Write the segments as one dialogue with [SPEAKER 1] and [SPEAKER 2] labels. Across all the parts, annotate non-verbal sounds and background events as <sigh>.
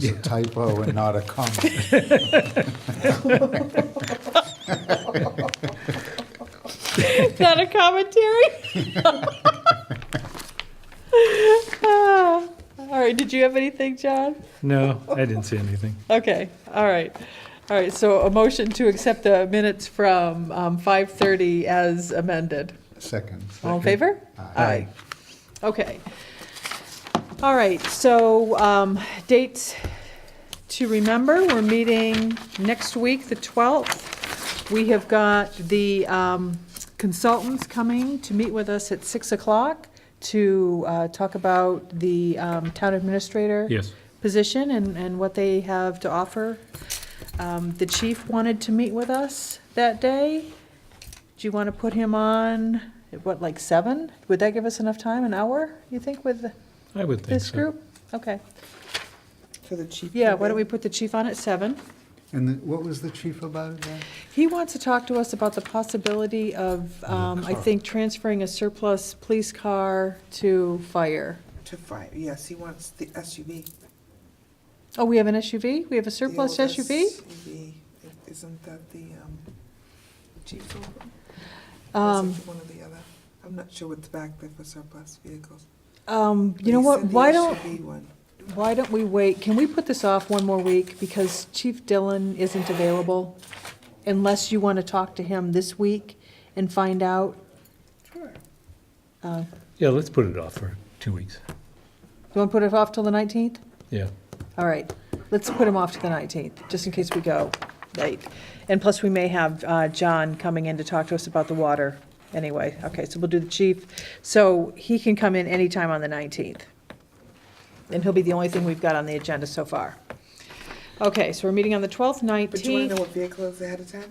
[SPEAKER 1] It's a typo and not a <laughs> comment.
[SPEAKER 2] <laughs> Is that a commentary? <laughs> Ah. All right, did you have anything, John?
[SPEAKER 3] No, I didn't see anything.
[SPEAKER 2] Okay, all right. All right, so a motion to accept the minutes from um, 5:30 as amended.
[SPEAKER 1] Second.
[SPEAKER 2] All in favor?
[SPEAKER 1] Aye.
[SPEAKER 2] Okay. All right, so um, dates to remember, we're meeting next week, the 12th. We have got the um, consultants coming to meet with us at 6 o'clock to uh, talk about the um, town administrator
[SPEAKER 3] Yes.
[SPEAKER 2] position and, and what they have to offer. Um, The chief wanted to meet with us that day. Do you want to put him on, what, like seven? Would that give us enough time, an hour, you think, with
[SPEAKER 3] I would think
[SPEAKER 2] this
[SPEAKER 3] so.
[SPEAKER 2] group? Okay,
[SPEAKER 4] For the chief.
[SPEAKER 2] yeah, why don't we put the chief on at seven?
[SPEAKER 1] And the- what was the chief about again?
[SPEAKER 2] He wants to talk to us about the possibility of, um, I think, transferring a surplus police car to fire.
[SPEAKER 4] To fire, yes, he wants the SUV.
[SPEAKER 2] Oh, we have an SUV? We have a surplus
[SPEAKER 4] The old
[SPEAKER 2] SUV?
[SPEAKER 4] SUV. Isn't that the, um, chief's old one? Or
[SPEAKER 2] Um,
[SPEAKER 4] is it one or the other? I'm not sure what's back there for surplus vehicles.
[SPEAKER 2] um,
[SPEAKER 4] But
[SPEAKER 2] you know
[SPEAKER 4] he
[SPEAKER 2] what,
[SPEAKER 4] said the
[SPEAKER 2] why don't,
[SPEAKER 4] SUV one.
[SPEAKER 2] Why don't we wait, can we put this off one more week, because Chief Dillon isn't available, unless you want to talk to him this week and find out?
[SPEAKER 4] Sure.
[SPEAKER 2] Uh,
[SPEAKER 3] Yeah, let's put it off for two weeks.
[SPEAKER 2] You want to put it off till the 19th?
[SPEAKER 3] Yeah.
[SPEAKER 2] All right, let's put him off to the 19th, just in case we go late. And plus, we may have uh, John coming in to talk to us about the water anyway. Okay, so we'll do the chief, so he can come in anytime on the 19th. And he'll be the only thing we've got on the agenda so far. Okay, so we're meeting on the 12th,
[SPEAKER 4] But you wanna know
[SPEAKER 2] 19th.
[SPEAKER 4] what vehicle is ahead of time?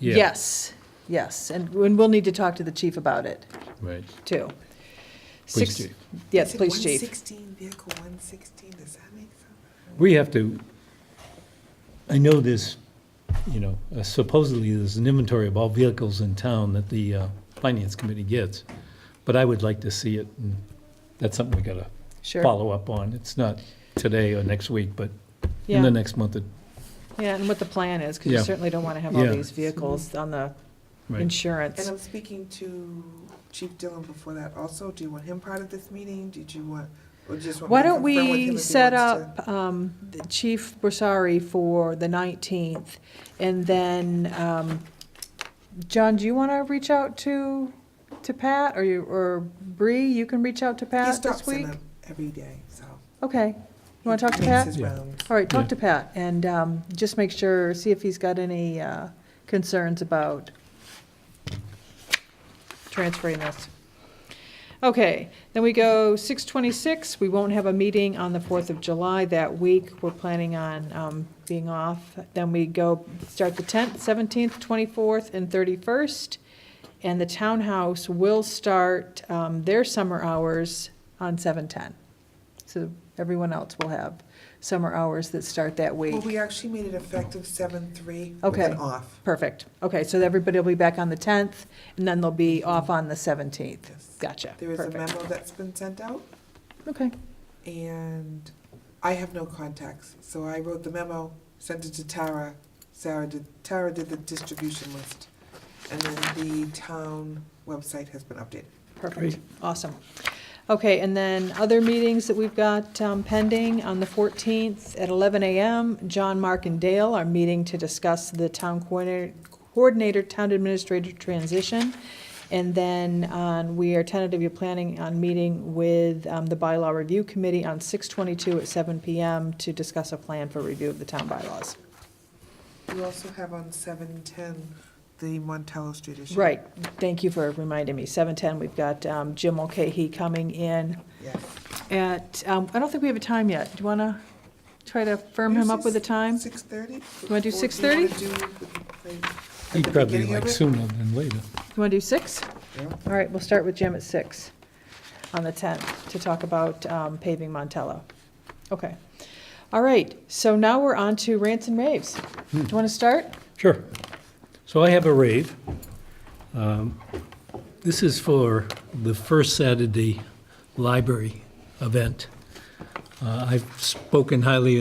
[SPEAKER 3] Yeah,
[SPEAKER 2] Yes, yes, and and we'll need to talk to the chief about it,
[SPEAKER 3] Right.
[SPEAKER 2] too. Six-
[SPEAKER 3] Please do.
[SPEAKER 2] Yes,
[SPEAKER 4] Is it
[SPEAKER 2] please, chief.
[SPEAKER 4] 116, vehicle one sixteen, does that make sense?
[SPEAKER 3] We have to, I know this, you know, uh, supposedly there's an inventory of all vehicles in town that the uh, finance committee gets, but I would like to see it. and That's something we gotta
[SPEAKER 2] Sure,
[SPEAKER 3] follow up on. It's not today or next week, but in
[SPEAKER 2] yeah,
[SPEAKER 3] the next month. it-
[SPEAKER 2] yeah, and what the plan is, because you
[SPEAKER 3] Yeah.
[SPEAKER 2] certainly don't want to have all
[SPEAKER 3] Yeah.
[SPEAKER 2] these vehicles on the
[SPEAKER 3] Right.
[SPEAKER 2] insurance.
[SPEAKER 4] And I'm speaking to Chief Dillon before that also. Do you want him part of this meeting? Did you want, or just want me
[SPEAKER 2] Why
[SPEAKER 4] to
[SPEAKER 2] don't
[SPEAKER 4] confirm with him if he
[SPEAKER 2] we
[SPEAKER 4] wants
[SPEAKER 2] set
[SPEAKER 4] to-
[SPEAKER 2] up um, the Chief Bressari for the 19th? And then, um, John, do you want to reach out to, to Pat, or you, or Bree, you can reach out to
[SPEAKER 4] He
[SPEAKER 2] Pat this
[SPEAKER 4] stops in
[SPEAKER 2] week?
[SPEAKER 4] them every day, so.
[SPEAKER 2] Okay, you want to talk to
[SPEAKER 4] He
[SPEAKER 2] Pat?
[SPEAKER 4] Makes his
[SPEAKER 3] Yeah.
[SPEAKER 4] rounds.
[SPEAKER 2] All right,
[SPEAKER 3] Yeah.
[SPEAKER 2] talk to Pat, and um, just make sure, see if he's got any uh, concerns about transferring this. Okay, then we go 6:26, we won't have a meeting on the 4th of July that week, we're planning on um, being off. Then we go, start the 10th, 17th, 24th, and 31st, and the townhouse will start um, their summer hours on 7:10. So everyone else will have summer hours that start that
[SPEAKER 4] Well,
[SPEAKER 2] week.
[SPEAKER 4] we actually made it effective seven, three,
[SPEAKER 2] Okay.
[SPEAKER 4] then off.
[SPEAKER 2] Perfect. Okay, so everybody will be back on the 10th, and then they'll be off on the 17th.
[SPEAKER 4] Yes.
[SPEAKER 2] Gotcha.
[SPEAKER 4] There is a
[SPEAKER 2] Perfect.
[SPEAKER 4] memo that's been sent out,
[SPEAKER 2] Okay,
[SPEAKER 4] and I have no contacts. So I wrote the memo, sent it to Tara. Sarah did, Tara did the distribution list. And then the town website has been updated.
[SPEAKER 2] perfect.
[SPEAKER 3] Great.
[SPEAKER 2] Awesome. Okay, and then other meetings that we've got um, pending, on the 14th at 11 a.m., John, Mark, and Dale are meeting to discuss the town coordinator, coordinator, town administrator transition. And then on, we are tentatively planning on meeting with um, the bylaw review committee on 6:22 at 7 p.m. to discuss a plan for review of the town bylaws.
[SPEAKER 4] We also have on seven, ten, the Montello Street issue.
[SPEAKER 2] Right, thank you for reminding me. 7:10, we've got um, Jim Mulcahy coming in
[SPEAKER 4] Yes.
[SPEAKER 2] at, um, I don't think we have a time yet. Do you want to try to firm him up with a time?
[SPEAKER 4] Six thirty? You
[SPEAKER 2] wanna do 6:30?
[SPEAKER 3] He'd probably like sooner than later.
[SPEAKER 2] You want to do 6?
[SPEAKER 4] Yeah.
[SPEAKER 2] All right, we'll start with Jim at 6 on the 10th to talk about um, paving Montello. Okay. All right, so now we're on to rants and raves.
[SPEAKER 4] Hmm.
[SPEAKER 2] Do you want to start?
[SPEAKER 3] Sure. So I have a rave. Um, This is for the first Saturday library event. Uh, I've spoken highly